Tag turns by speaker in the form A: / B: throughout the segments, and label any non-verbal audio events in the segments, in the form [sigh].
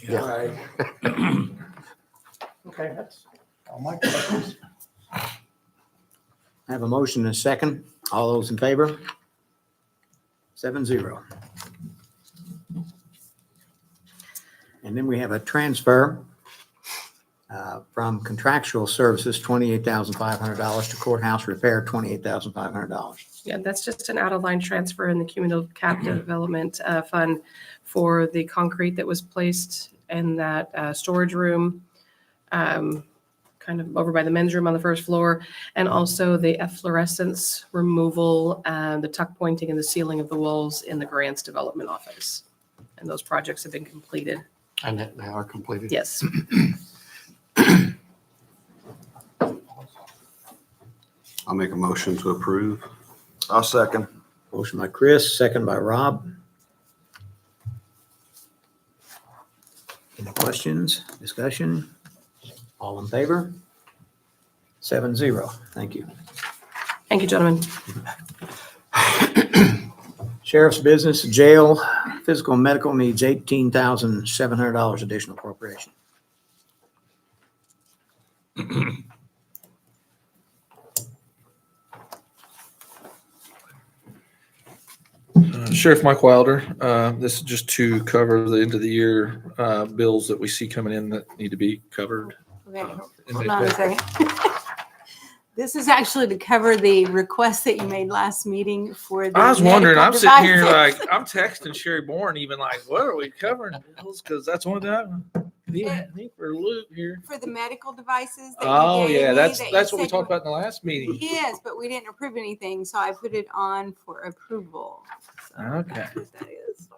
A: Yeah.
B: Right.
C: Okay, that's all my questions.
A: I have a motion and a second. All those in favor? Seven zero. And then we have a transfer uh, from contractual services, $28,500 to courthouse repair, $28,500.
D: Yeah, that's just an out-of-line transfer in the cumulative cap development uh, fund for the concrete that was placed in that uh, storage room, um, kind of over by the men's room on the first floor, and also the efflorescence removal, uh, the tuck pointing and the sealing of the walls in the grants development office. And those projects have been completed.
B: And that they are completed.
D: Yes.
B: I'll make a motion to approve.
E: I'll second.
A: Motion by Chris, second by Rob. Any questions, discussion? All in favor? Seven zero. Thank you.
D: Thank you, gentlemen.
A: Sheriff's business, jail, physical and medical needs eighteen thousand seven hundred dollars additional appropriation.
F: Sheriff Mike Wilder, uh, this is just to cover the end of the year uh, bills that we see coming in that need to be covered.
G: Okay,
F: uh, in
G: hold
F: the-
G: on a second. [laughs] This is actually to cover the request that you made last meeting for the.
F: I was wondering, I'm
G: medical
F: sitting here like,
G: devices. [laughs]
F: I'm texting Sherry Bourne even like, what are we covering bills? Because that's one of the, I think we're loop here.
G: [laughs] For the medical devices. that you
F: Oh,
G: gave
F: yeah,
G: me
F: that's,
G: that you
F: that's what we
G: said you-
F: talked about in the last meeting.
G: Yes, but we didn't approve anything, so I put it on for approval. So
F: Okay.
G: that's what that is.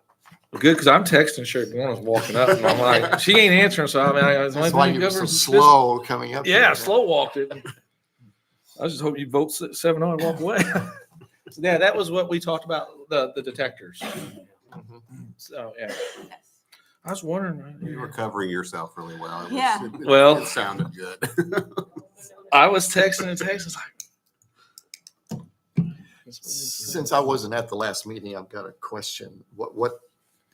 F: Good, because I'm texting Sherry Bourne, I was walking up and I'm like, she ain't answering, so I mean, I was
B: That's why
F: like,
B: you were so
F: this-
B: slow Oh, coming up.
F: Yeah,
B: here.
F: slow walked it. I just hope you vote se- seven on and walk away. So, [laughs] Yeah, that was what we talked about, the, the detectors.
B: Mhm.
F: So, yeah,
G: Yes.
F: Mm-hmm. I was wondering. uh,
B: You were covering yourself really well. It was-
G: Yeah.
B: it-
F: Well-
B: It sounded good.
F: I was texting and texting, it's like.
B: Since I wasn't at the last meeting, I've got a question. What, what,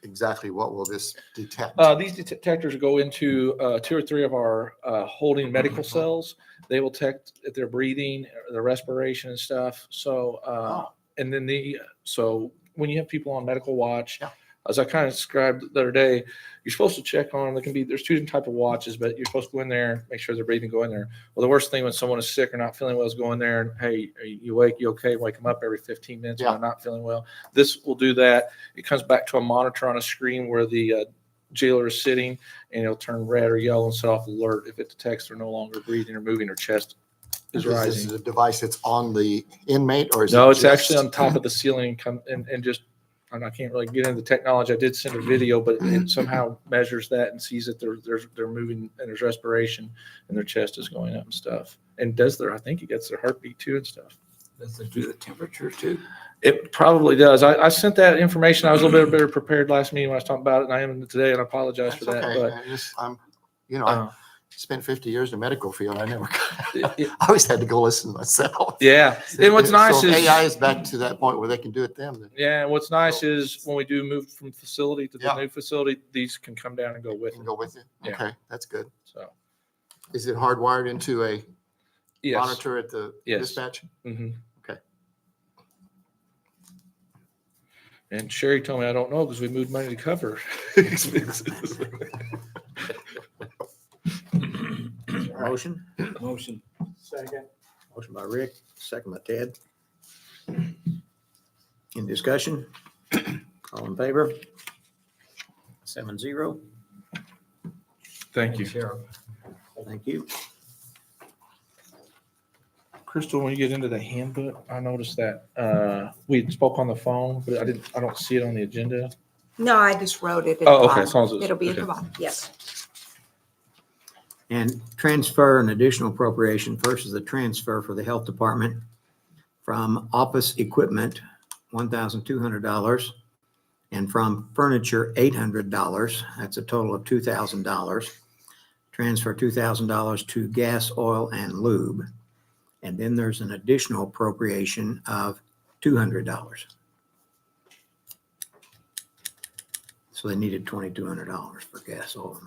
B: exactly what will this detect?
F: Uh, these detectors go into, uh, two or three of our, uh, holding medical
B: Mm-hmm.
F: cells. They will detect their breathing, uh, their respiration and stuff. So, uh, and then the, so when you have people on medical watch,
B: Yeah.
F: as I kind of described the other day, you're supposed to check on, there can be, there's two different type of watches, but you're supposed to go in there, make sure they're breathing, go in there. Well, the worst thing when someone is sick or not feeling well is go in there and, hey, are you you awake? You okay? Wake them up every 15 minutes when
B: Yeah.
F: they're not feeling well. This will do that. It comes back to a monitor on a screen where the uh, jailer is sitting and it'll turn red or yellow and set off alert if it detects they're no longer breathing or moving or chest is
B: This
F: rising.
B: is a device that's on the inmate or is it?
F: No, it's
B: just-
F: actually on top of the ceiling and come and, and just, and I can't really get into the technology. I did send a video, but it somehow measures that and sees that they're, they're, they're moving and there's respiration and their chest is going up and stuff. And does their, I think it gets their heartbeat too and stuff.
H: Does it do the temperature too?
F: It probably does. I, I sent that information. I was a little bit better prepared last meeting when I was talking about it and I am today and I
B: [laughs]
F: apologize
B: That's
F: for that,
B: okay.
F: but.
B: I just- I'm, you know, I
F: uh,
B: spent fifty years in the medical field. I never, [laughs]
F: it- it-
B: I always had to go listen myself.
F: Yeah. And what's
B: So if
F: nice is.
B: AI is back to that point where they can do it then. then-
F: Yeah, and what's nice
B: So-
F: is when we do move from facility to the
B: Yeah.
F: new facility, these can come down and go with
B: Can
F: it.
B: go with it.
F: Yeah.
B: Okay, that's good.
F: So,
B: Is it hardwired into a
F: yes.
B: monitor at the
F: Yes.
B: dispatch?
F: hmm
B: Okay.
F: And Sherry told me I don't know because we moved money to cover [laughs] expenses.
A: Motion?
H: Motion.
C: Second.
A: Motion by Rick, second by Ted. In discussion? All in favor? Seven zero.
F: Thank you.
H: Sheriff.
A: Thank you.
F: Crystal, when you get into the handbook, I noticed that uh, we spoke on the phone, but I didn't, I don't see it on the agenda.
G: No, I just wrote it. at the
F: Oh, okay.
G: bottom.
F: as long as it's-
G: It'll be at
F: okay.
G: the bottom, yes.
A: And transfer an additional appropriation versus the transfer for the Health Department from office equipment, $1,200, and from furniture, $800. That's a total of $2,000. Transfer $2,000 to gas, oil, and lube. And then there's an additional appropriation of $200. So they needed twenty-two hundred dollars for gas oil and